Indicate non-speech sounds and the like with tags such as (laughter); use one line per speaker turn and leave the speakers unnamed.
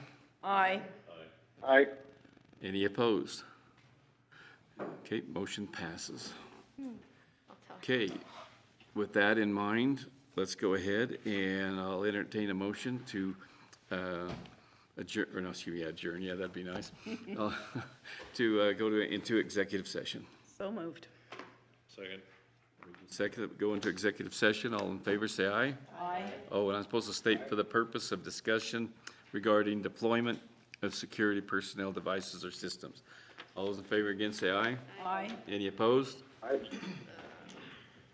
Aye.
Aye.
Any opposed? Okay, motion passes. Okay, with that in mind, let's go ahead and I'll entertain a motion to uh, adjourn, or no, excuse me, adjourn, yeah, that'd be nice. Uh, (laughs) To uh, go to, into executive session.
So moved.
Second.
Second, go into executive session, all in favor, say aye.
Aye.
Oh, and I'm supposed to state for the purpose of discussion regarding deployment of security personnel devices or systems. All those in favor again, say aye.
Aye.
Any opposed?
Aye.